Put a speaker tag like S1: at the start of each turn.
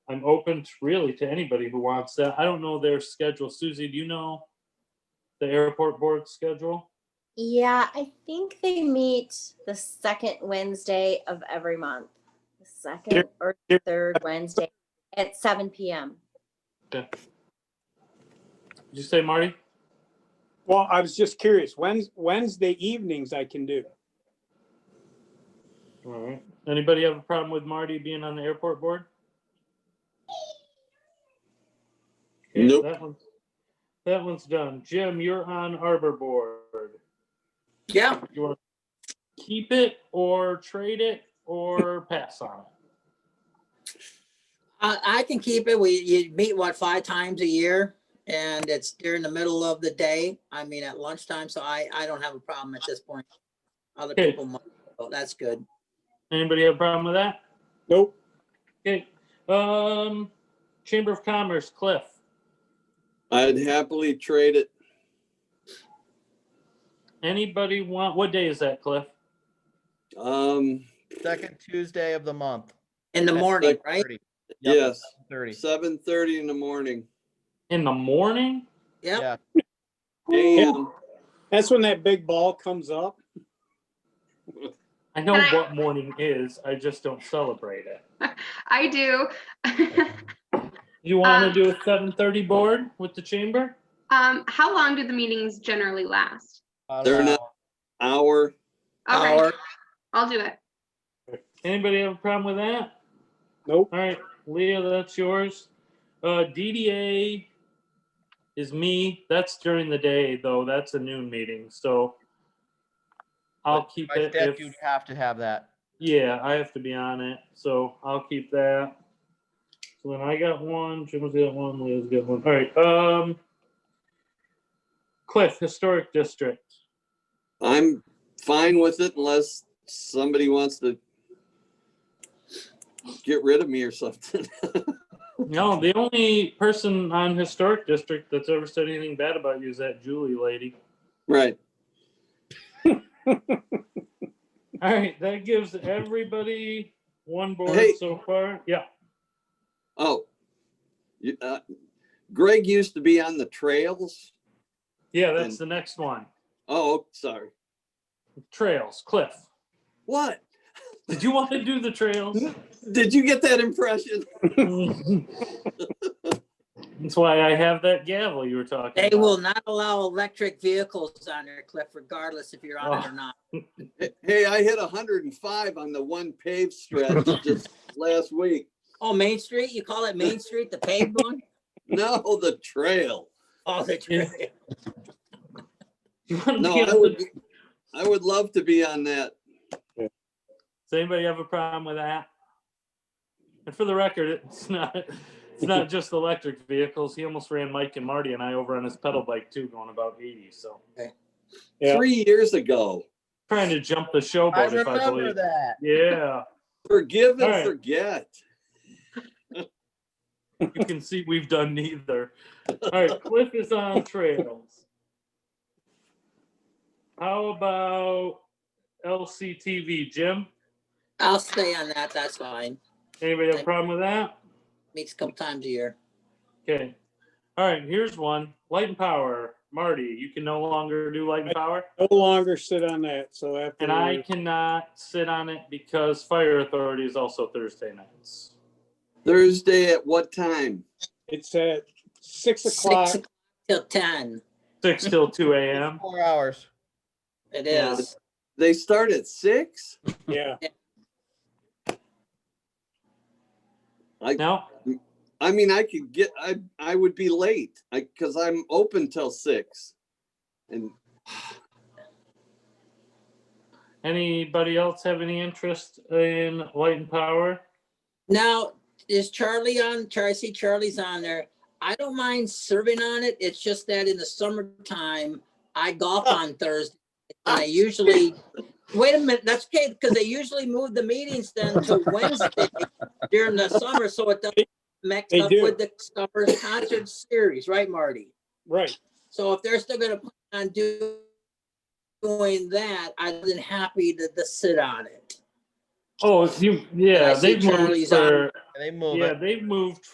S1: I'm open to really to anybody who wants that. I don't know their schedule. Susie, do you know the airport board schedule?
S2: Yeah, I think they meet the second Wednesday of every month. The second or
S1: there-
S2: third Wednesday at seven PM.
S1: Did you say Marty?
S3: Well, I was just curious, Wednes- Wednesday evenings I can do.
S1: All right. Anybody have a problem with Marty being on the airport board? Okay,
S4: Nope.
S1: That one's, that one's done. Jim, you're on arbor board.
S4: Yeah,
S1: You want to keep it or trade it or pass on it?
S4: I, I can keep it. We, you meet what, five times a year? And it's during the middle of the day. I mean, at lunchtime, so I, I don't have a problem at this point. Other
S1: Okay.
S4: people, might, so that's good.
S1: Anybody have a problem with that?
S3: Nope.
S1: Okay. Um, Chamber of Commerce, Cliff.
S5: I'd happily trade it.
S1: Anybody want, what day is that, Cliff?
S5: Um,
S6: Second Tuesday of the month.
S4: In the
S6: at
S4: morning,
S6: 7:30.
S4: right?
S6: Yep,
S5: Yes.
S6: 7:30.
S5: seven thirty in the morning.
S1: In the morning?
S4: Yep.
S6: Yeah,
S5: Damn.
S3: That's when that big ball comes up.
S1: I know
S7: Can I-
S1: what morning is, I just don't celebrate it.
S7: I do.
S1: You want
S7: Um,
S1: to do a seven thirty board with the chamber?
S7: um, how long do the meetings generally last?
S6: about
S5: They're
S6: an
S5: not-
S6: hour.
S5: Hour.
S7: Okay,
S4: Hour.
S7: I'll do it.
S1: Anybody have a problem with that?
S3: Nope.
S1: All right, Leah, that's yours. Uh, DDA is me. That's during the day though. That's a noon meeting, so I'll keep
S6: By
S1: it.
S6: statute,
S1: if-
S6: you have to have that.
S1: Yeah, I have to be on it, so I'll keep that. So then I got one, Jim's got one, Leo's got one. All right, um. Cliff, Historic District.
S5: I'm fine with it unless somebody wants to get rid of me or something.
S1: No, the only person on Historic District that's ever said anything bad about you is that Julie lady.
S5: Right.
S1: All right, that gives everybody one board
S5: Hey.
S1: so far. Yeah,
S5: Oh. You- uh, Greg used to be on the trails.
S1: yeah, that's the next one.
S5: Oh, sorry.
S1: Trails, Cliff.
S5: What?
S1: Did you want to do the trails?
S5: Did you get that impression?
S1: That's why I have that gavel you were talking
S4: They
S1: about.
S4: will not allow electric vehicles on their cliff regardless if you're
S3: Oh.
S4: on it or not.
S5: Hey, I hit hundred and five on the one paved stretch just last week.
S4: Oh, Main Street? You call it Main Street, the paved one?
S5: No, the trail.
S4: Oh, that's right.
S1: You wanna
S5: No,
S1: be on
S5: I
S1: the-
S5: would, be- I would love to be on that.
S1: Does anybody have a problem with that? And for the record, it's not, it's not just electric vehicles. He almost ran Mike and Marty and I over on his pedal bike too, going about eighty, so.
S3: Yeah.
S5: Three years ago.
S1: Trying to jump the
S6: I
S1: showboat if I
S6: remember
S1: believe.
S6: that.
S1: Yeah,
S5: Forgive
S1: All
S5: and
S1: right.
S5: forget.
S1: you can see we've done neither. All right, Cliff is on trails. How about LCTV, Jim?
S4: I'll stay on that. That's fine.
S1: Anybody have a problem with that?
S4: Meets a couple times a year.
S1: Okay. All right, here's one. Light and power. Marty, you can no longer do light and power.
S3: No longer sit on that, so after.
S1: And I cannot sit on it because fire authority is also Thursday nights.
S5: Thursday at what time?
S3: It's at six
S4: Six
S3: o'clock.
S4: o'clock till ten.
S1: Six till two AM.
S6: Four hours.
S4: It
S5: Yeah.
S4: is.
S5: They start at six?
S3: Yeah,
S1: No?
S5: I mean, I could get, I, I would be late. I, cause I'm open till six. And
S1: Anybody else have any interest in light and power?
S4: Now, is Charlie on, Char- I see Charlie's on there. I don't mind serving on it. It's just that in the summertime, I golf on Thursday. And I usually, wait a minute, that's okay, because they usually move the meetings then to Wednesday during the summer, so it doesn't mix
S3: They
S4: up
S3: do.
S4: with the summer concert series, right, Marty?
S3: right.
S4: So if they're still gonna plan on do- doing that, I'd been happy to, to sit on it.
S1: Oh, if you, yeah,
S4: I see
S1: they've moved
S4: Charlie's on.
S1: for,
S6: They move it.
S1: Yeah, they've moved